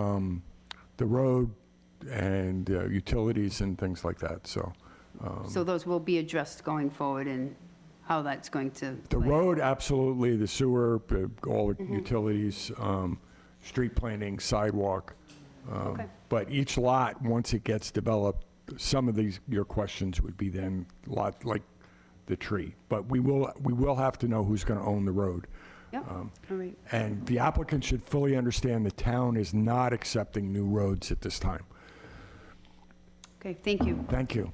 um, the road and uh, utilities and things like that, so. So those will be addressed going forward and how that's going to. The play out. road, absolutely, the sewer, uh, all the utilities, um, street planning, sidewalk. um, Okay. But each lot, once it gets developed, some of these, your questions would be then lot, like the tree. But we will, we will have to know who's going to own the road. Yep, Um, all right, And the applicant should fully understand the town is not accepting new roads at this time. okay, thank you. Thank you.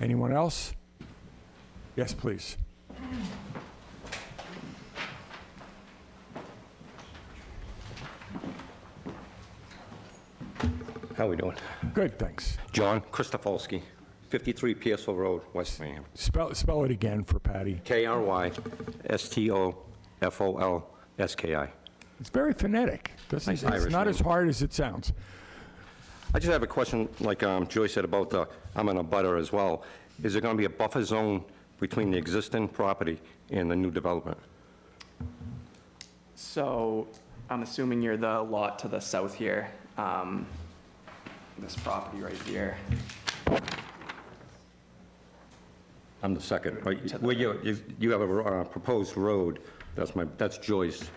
Anyone else? Yes, please. How we doing? Good, thanks. John Christofolsky, 53 Pearsall Road, West Wareham. Spell, spell it again for Patty. K-R-Y-S-T-O-F-O-L-S-K-I. It's very phonetic. Doesn't- Nice It's Irish not as name. hard as it sounds. I just have a question, like um, Joy said about the, I'm in a butter as well. Is there going to be a buffer zone between the existing property and the new development? So I'm assuming you're the lot to the south here, um, this property right here. I'm the second, right? Well, you, you- you have a ro- uh, proposed road, that's my, that's Joy's.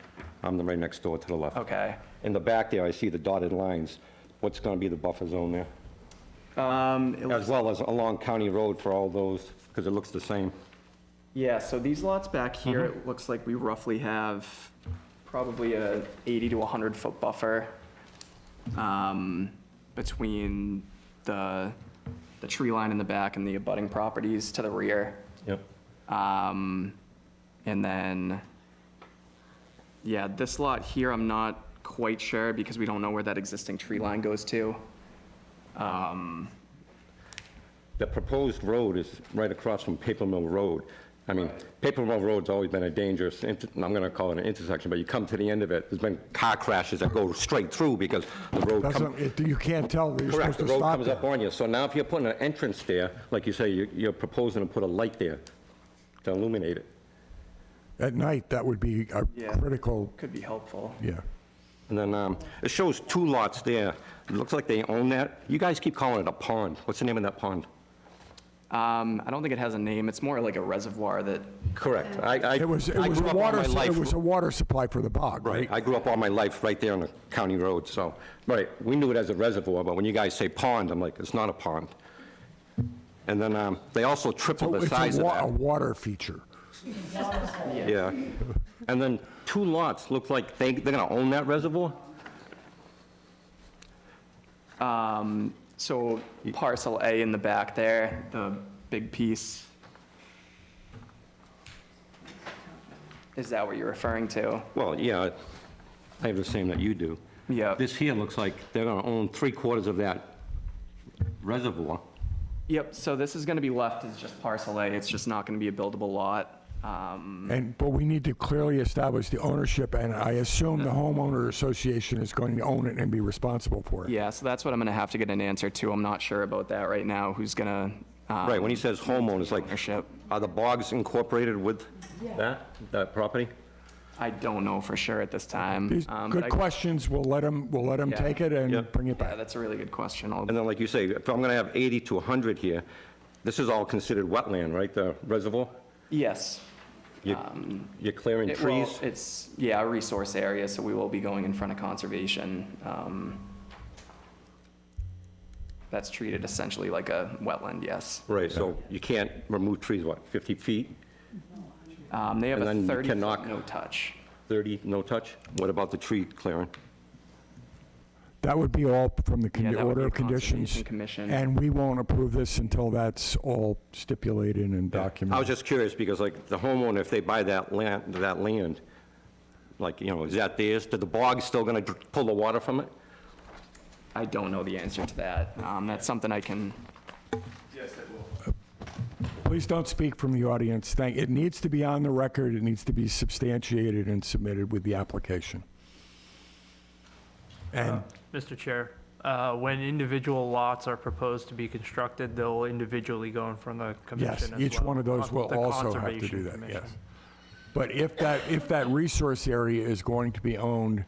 I'm the right next door to the left. Okay. In the back there, I see the dotted lines. What's going to be the buffer zone there? Um, it As looks- well as along County Road for all those, because it looks the same. yeah, so these lots back here, it looks like we roughly have probably a 80 to 100 foot buffer um, between the, the tree line in the back and the abutting properties to the rear. Yep. Um, and then, yeah, this lot here, I'm not quite sure because we don't know where that existing tree line goes to. Um, The proposed road is right across from Paper Mill Road. I mean, Paper Mill Road's always been a dangerous, inter- I'm going to call it an intersection, but you come to the end of it, there's been car crashes that go straight through because the road Doesn't, comes... it- you can't tell. You're supposed Correct, the to road stop comes up there. on you. So now if you're putting an entrance there, like you say, you- you're proposing to put a light there to illuminate it. At night, that would be a Yeah. critical, could be helpful. yeah. And then um, it shows two lots there. It looks like they own that. You guys keep calling it a pond. What's the name of that pond? Um, I don't think it has a name. It's more like a reservoir that, Correct. I I- I It grew was, it was up a all my water, life it was a water supply for the bog, right? Right, I grew up all my life right there on the county road, so, right, we knew it as a reservoir, but when you guys say pond, I'm like, it's not a pond. And then um, they also So tripled the it's a size of wa- A that. water feature. Yeah. And then two lots, look like they, they're gonna own that reservoir? um, so parcel A in the back there, the big piece. Is that what you're referring to? Well, yeah, I have the same that you do. Yeah. This here looks like they're gonna own three quarters of that reservoir. Yep, so this is gonna be left as just parcel A, it's just not gonna be a buildable lot. Um, And, but we need to clearly establish the ownership, and I assume the homeowner association is going to own it and be responsible for it. yeah, so that's what I'm gonna have to get an answer to, I'm not sure about that right now, who's gonna, um, Right, when he says homeowners, like, ownership. are the bogs incorporated with that, that property? I don't know for sure at this time. These Um, but Good I- questions, we'll let them, we'll let them Yeah. take it Yeah. and bring it Yeah, back. that's a really good question, I'll, And then, like you say, if I'm going to have 80 to 100 here, this is all considered wetland, right, the reservoir? yes. You- You're clearing It- well, trees? It's, yeah, a resource area, so we will be going in front of conservation. Um, That's treated essentially like a wetland, yes. Right, so you can't remove trees, what, 50 feet, Um, They have And a then you 30 foot cannot- no touch. 30, no touch? What about the tree clearing? That would be all from the con- Yeah, that would order be of conditions. Conservation Commission. And we won't approve this until that's all stipulated and I was documented. just curious, because like the homeowner, if they buy that land, that land, like, you know, is that theirs? Did the bog still going to pull the water from it? I don't know the answer to that. Um, That's something I can, Please don't speak from the audience. Thank, it needs to be on the record, it needs to be substantiated and submitted with the application. And Mr. Chair, uh, when individual lots are proposed to be constructed, they'll individually go in front of the yes, commission as each well, one of those con- will the also have to Conservation do that, Commission. yes. But if that, if that resource area is going to be owned